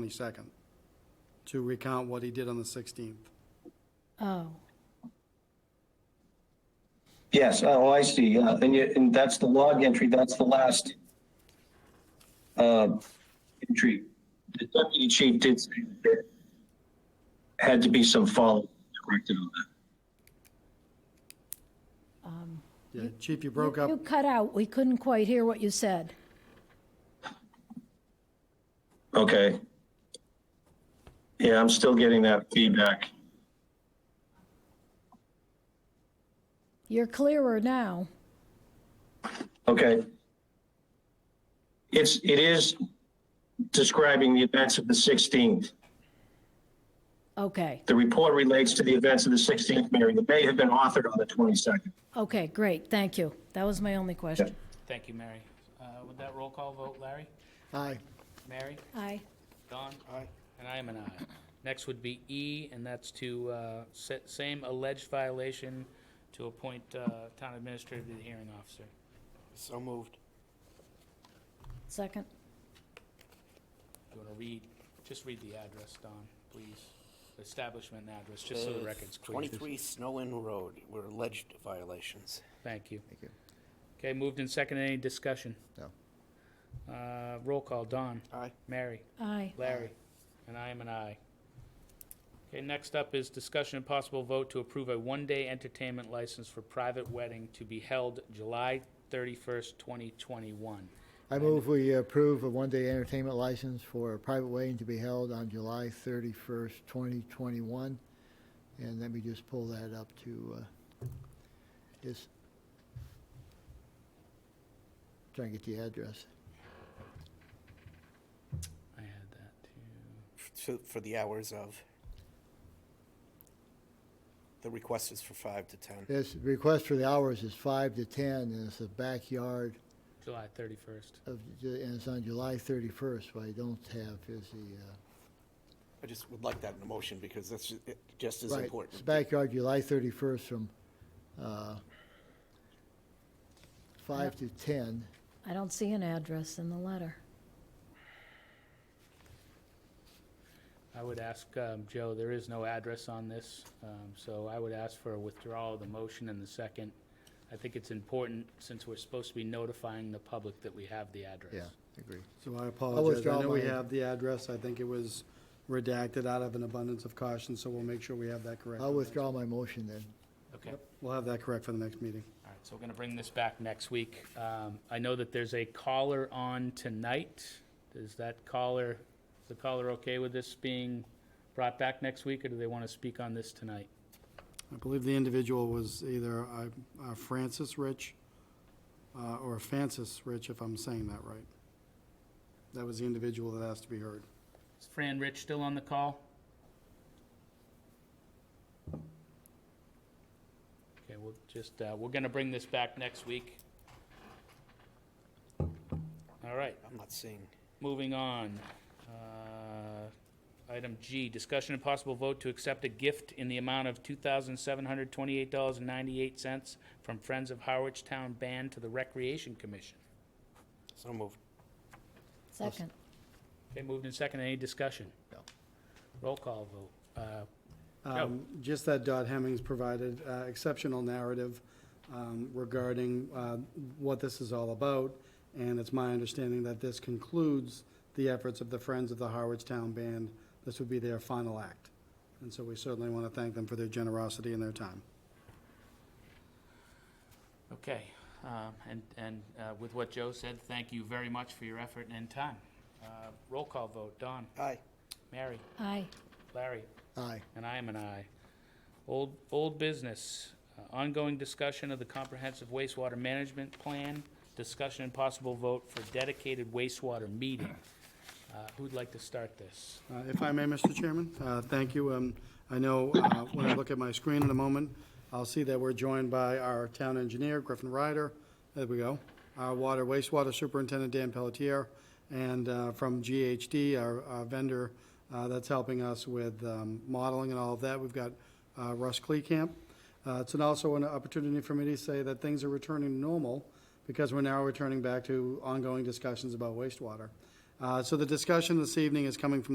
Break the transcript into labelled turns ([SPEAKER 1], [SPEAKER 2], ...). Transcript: [SPEAKER 1] 22nd to recount what he did on the 16th.
[SPEAKER 2] Oh,
[SPEAKER 3] Yes, oh, I see. Uh, And you, and that's the log entry, that's the last uh, entry. The deputy chief did say that there had to be some follow corrected on that.
[SPEAKER 1] Yeah, Chief, you broke up.
[SPEAKER 2] you cut out. We couldn't quite hear what you said.
[SPEAKER 3] Okay. Yeah, I'm still getting that feedback.
[SPEAKER 2] You're clearer now.
[SPEAKER 3] Okay. It's, it is describing the events of the 16th.
[SPEAKER 2] Okay,
[SPEAKER 3] The report relates to the events of the 16th, Mary, that may have been authored on the 22nd.
[SPEAKER 2] okay, great, thank you. That was my only question.
[SPEAKER 4] Thank you, Mary. Uh, With that roll call vote, Larry?
[SPEAKER 1] Aye.
[SPEAKER 4] Mary?
[SPEAKER 2] Aye.
[SPEAKER 4] Don? Aye. And I am an aye. Next would be E, and that's to uh, set same alleged violation to appoint uh, town administrator to the hearing officer.
[SPEAKER 5] So moved.
[SPEAKER 2] Second?
[SPEAKER 4] Do you want to read, just read the address, Don, please? The Establishment address, just
[SPEAKER 5] Uh,
[SPEAKER 4] so the record's clear.
[SPEAKER 5] 23 Snowin Road were alleged violations.
[SPEAKER 4] Thank you. Thank you. Okay, moved and second. Any discussion?
[SPEAKER 6] No.
[SPEAKER 4] Uh, Roll call, Don?
[SPEAKER 5] Aye.
[SPEAKER 4] Mary?
[SPEAKER 2] Aye.
[SPEAKER 4] Larry? And I am an aye. Okay, next up is discussion and possible vote to approve a one-day entertainment license for private wedding to be held July 31st, 2021.
[SPEAKER 6] I move we approve a one-day entertainment license for a private wedding to be held on July thirty-first, twenty twenty-one. And let me just pull that up to, uh, just trying to get the address.
[SPEAKER 4] I had that too.
[SPEAKER 5] So, For the hours of, the request is for 5 to 10.
[SPEAKER 6] This request for the hours is five to ten, and it's the backyard
[SPEAKER 4] July 31st.
[SPEAKER 6] of, and it's on July thirty-first. What I don't have is the, uh,
[SPEAKER 5] I just would like that in a motion because that's ju- it just as
[SPEAKER 6] uh, right, it's
[SPEAKER 5] important.
[SPEAKER 6] backyard, July thirty-first from, uh, five to ten.
[SPEAKER 2] I don't see an address in the letter.
[SPEAKER 4] I would ask, um, Joe, there is no address on this, um, so I would ask for a withdrawal of the motion and the second. I think it's important, since we're supposed to be notifying the public that we have the address.
[SPEAKER 6] Yeah, agree.
[SPEAKER 1] So I apologize. I
[SPEAKER 6] withdraw
[SPEAKER 1] know we
[SPEAKER 6] my-
[SPEAKER 1] have the address. I think it was redacted out of an abundance of caution, so we'll make sure we have that correct.
[SPEAKER 6] I'll withdraw my motion then.
[SPEAKER 4] Okay, all
[SPEAKER 1] We'll have that correct for the next meeting.
[SPEAKER 4] right, so we're gonna bring this back next week. Um, I know that there's a caller on tonight. Is that caller, is the caller okay with this being brought back next week, or do they wanna speak on this tonight?
[SPEAKER 1] I believe the individual was either uh, uh, Francis Rich uh, or Francis Rich, if I'm saying that right. That was the individual that asked to be heard.
[SPEAKER 4] Is Fran Rich still on the call? Okay, we'll just, uh, we're gonna bring this back next week. All right,
[SPEAKER 5] I'm not seeing,
[SPEAKER 4] moving on. Uh, Item G, discussion and possible vote to accept a gift in the amount of two thousand seven hundred twenty-eight dollars and ninety-eight cents from Friends of Harwich Town Band to the Recreation Commission.
[SPEAKER 5] so moved.
[SPEAKER 2] Second?
[SPEAKER 4] Okay, moved and second, any discussion?
[SPEAKER 6] No.
[SPEAKER 4] Roll call vote. Uh,
[SPEAKER 1] Um, Just that Dodd Hemmings provided uh, exceptional narrative um, regarding uh, what this is all about, and it's my understanding that this concludes the efforts of the Friends of the Harwich Town Band. This would be their final act, and so we certainly want to thank them for their generosity and their time.
[SPEAKER 4] Okay, um, and, and uh, with what Joe said, thank you very much for your effort and time. Uh, Roll call vote, Don,
[SPEAKER 5] Aye.
[SPEAKER 4] Mary,
[SPEAKER 2] Aye.
[SPEAKER 4] Larry,
[SPEAKER 6] Aye.
[SPEAKER 4] and I am an aye. Old, old business, uh, ongoing discussion of the comprehensive wastewater management plan, discussion and possible vote for dedicated wastewater meeting. Uh, Who'd like to start this?
[SPEAKER 1] Uh, If I may, Mr. Chairman, uh, thank you. Um, I know uh, when I look at my screen in a moment, I'll see that we're joined by our town engineer, Griffin Ryder, there we go, our water wastewater superintendent, Dan Pelletier, and uh, from GHD, our our vendor uh, that's helping us with um, modeling and all of that, we've got uh, Russ Cleacamp. Uh, It's an- also an opportunity for me to say that things are returning to normal because we're now returning back to ongoing discussions about wastewater. Uh, So the discussion this evening is coming from the